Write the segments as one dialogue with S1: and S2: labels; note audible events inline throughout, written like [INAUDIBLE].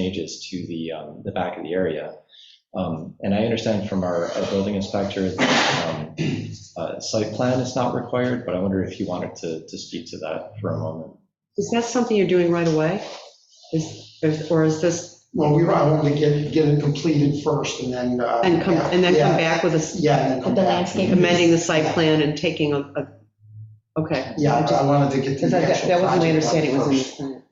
S1: changes to the, um, the back of the area. Um, And I understand from our, our building inspector, that um, uh, site plan is not required, but I wonder if you wanted to, to speak to that for a moment.
S2: Is that something you're doing right away? Is, is- or is this,
S3: Well, we I wanted to get, get it completed first and then. uh,
S2: and come, and then come
S3: yeah,
S2: back with a
S3: Yeah. and then come
S4: The
S3: back.
S4: landscape.
S2: amending the site plan and taking a, a, okay.
S3: Yeah, I I wanted to get the
S2: Because that
S3: actual
S2: that wasn't my
S3: project
S2: understanding, it was in
S3: first.
S2: this plan.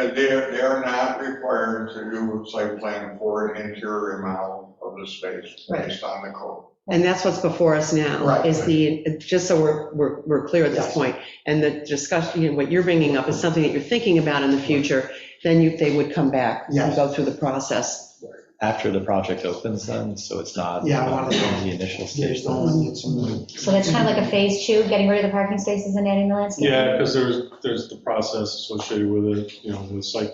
S5: And they're, they're not required to do a site plan for an interior amount of the space
S2: Right.
S5: based on the code.
S2: And that's what's before us now,
S3: Right.
S2: is the, just so we're, we're, we're clear at this
S3: Yes.
S2: point, and the discussion, you know, what you're bringing up is something that you're thinking about in the future, then you, they would come back and
S3: Yes.
S2: go through the process.
S1: After the project opens then, so it's not
S3: Yeah, I
S1: not
S3: wanted to-
S1: in the initial stage.
S3: There's no
S2: Mm-hmm.
S3: one that's in the.
S4: So that's kind of like a phase two, getting rid of the parking spaces and adding the landscape.
S6: Yeah, because there's, there's the process associated with it, you know, with site,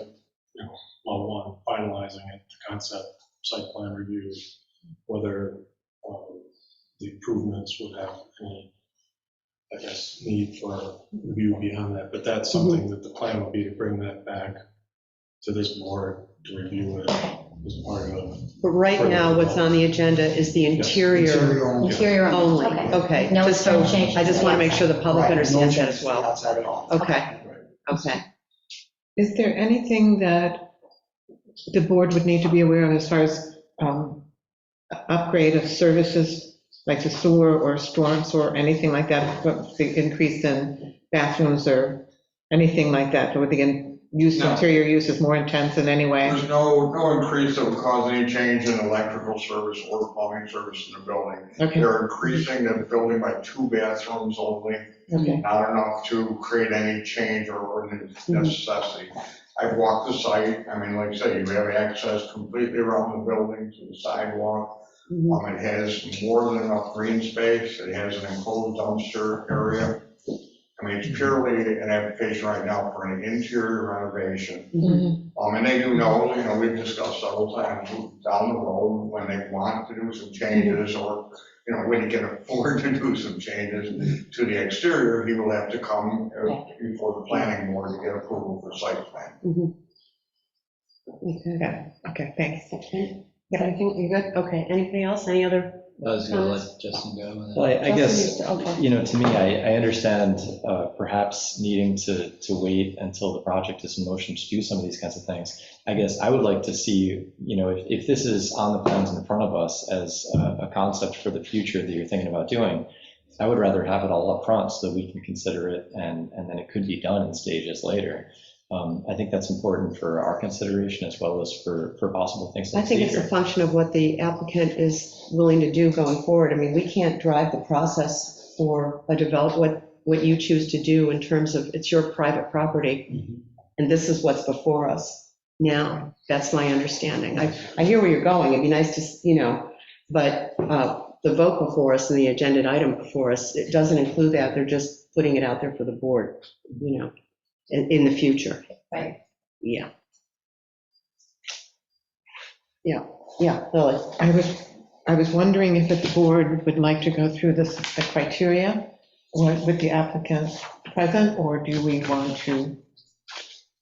S6: you know, level one, finalizing it, the concept, site plan review, whether um, the improvements would have any, I guess, need for review beyond that, but that's something that the plan would be to bring that back to this board to review it as part of,
S2: But right now, what's on the agenda is the interior
S3: only.
S4: Interior only.
S2: only,
S4: Okay.
S2: okay.
S4: No
S2: Just so,
S4: changes.
S2: I just want to make sure the public
S3: Right, no
S2: understands that
S3: changes
S2: as well.
S3: Outside at all.
S2: Okay, okay.
S7: Is there anything that the board would need to be aware of as far as um, upgrade of services, like the sewer or storm sewer, anything like that, but the increase in bathrooms or anything like that, or the use,
S5: No.
S7: interior use is more intense in any way?
S5: There's no, no increase that would cause any change in electrical service or plumbing service in the building.
S7: Okay,
S5: They're increasing the building by two bathrooms only,
S7: okay,
S5: not enough to create any change or ordinance necessity. I've walked the site, I mean, like I said, you have access completely around the building to the sidewalk.
S2: Mhm.
S5: Um, it has more than enough green space, it has an enclosed dumpster area. I mean, it's purely an application right now for an interior renovation.
S2: Mm-hmm.
S4: Mm-hmm.
S5: Um, and they do know, you know, we've discussed several times down the road, when they want to do some
S2: Mm.
S5: changes, or, er you know, when he can [LAUGHS] afford to do some changes to the exterior, he will have to come uh, before the planning board to get approval for site plan.
S7: okay, thanks.
S2: Yeah, I think you're good, okay. Anything else, any other?
S8: I was gonna let Justin go with
S1: Well,
S8: it.
S1: I- I guess,
S2: Okay.
S1: you know, to me, I, I understand uh, perhaps needing to, to wait until the project is in motion to do some of these kinds of things. I guess I would like to see, you know, if, if this is on the plans in front of us as uh, a, a concept for the future that you're thinking about doing, I would rather have it all up front so that we can consider it and, and then it could be done in stages later. Um, I think that's important for our consideration as well as for, for possible things. in
S2: I
S1: the
S2: think it's a
S1: future.
S2: function of what the applicant is willing to do going forward. I mean, we can't drive the process for a develop, what, what you choose to do in terms of, it's your private property, and this is what's before us now. That's my understanding. I, I hear where you're going, it'd be nice to, s- you know, but uh, the vote before us and the agenda item before us, it doesn't include that, they're just putting it out there for the board, you know, in, in the future.
S4: Right.
S2: Yeah. Yeah, yeah, Lily.
S7: I was, I was wondering if the board would like to go through this, the criteria, or with the applicant present, or do we want to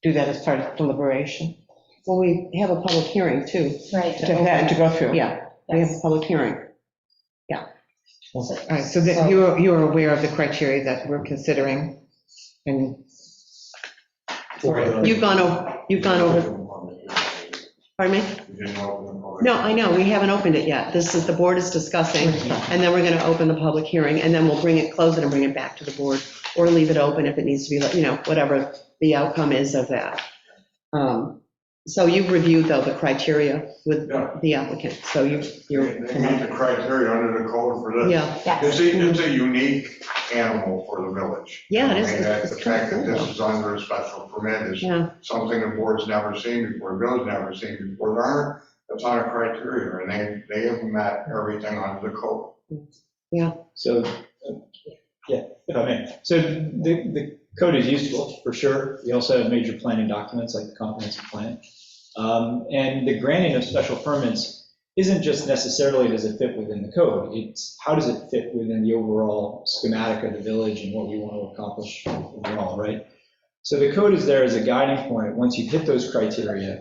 S7: do that as part of deliberation?
S2: Well, we have a public hearing too.
S4: Right.
S7: To have, to go through?
S2: Yeah, we have
S4: Yes.
S2: a public hearing.
S7: All right, so that you are, you are aware of the criteria that we're considering, and
S2: You've gone over, you've gone over, pardon me?
S5: You didn't open the public.
S2: No, I know, we haven't opened it yet. This is, the board is discussing, and then we're going to open the public hearing, and then we'll bring it, close it and bring it back to the board, or leave it open if it needs to be, let- you know, whatever the outcome is of that. Um, So you've reviewed, though, the criteria with
S5: Yeah.
S2: the applicant, so you,
S5: They
S2: you're,
S5: they meet the criteria under the code for this.
S2: yeah,
S5: It's a, it's a unique animal for the village.
S2: Yeah, it is.
S5: I mean, that- The
S2: It's kind of
S5: fact that this
S2: cool.
S5: is under a special permit is
S2: yeah.
S5: something the board's never seen before, Bill's never seen before. There aren't a ton of criteria, and they, they have met everything under the code.
S8: So, uh, yeah, if I may. So the, the code is useful, for sure. We also have major planning documents like the comprehensive plan. Um, And the granting of special permits isn't just necessarily does it fit within the code. It's how does it fit within the overall schematic of the village and what we want to accomplish overall, right? So the code is there as a guiding point. Once you hit those criteria,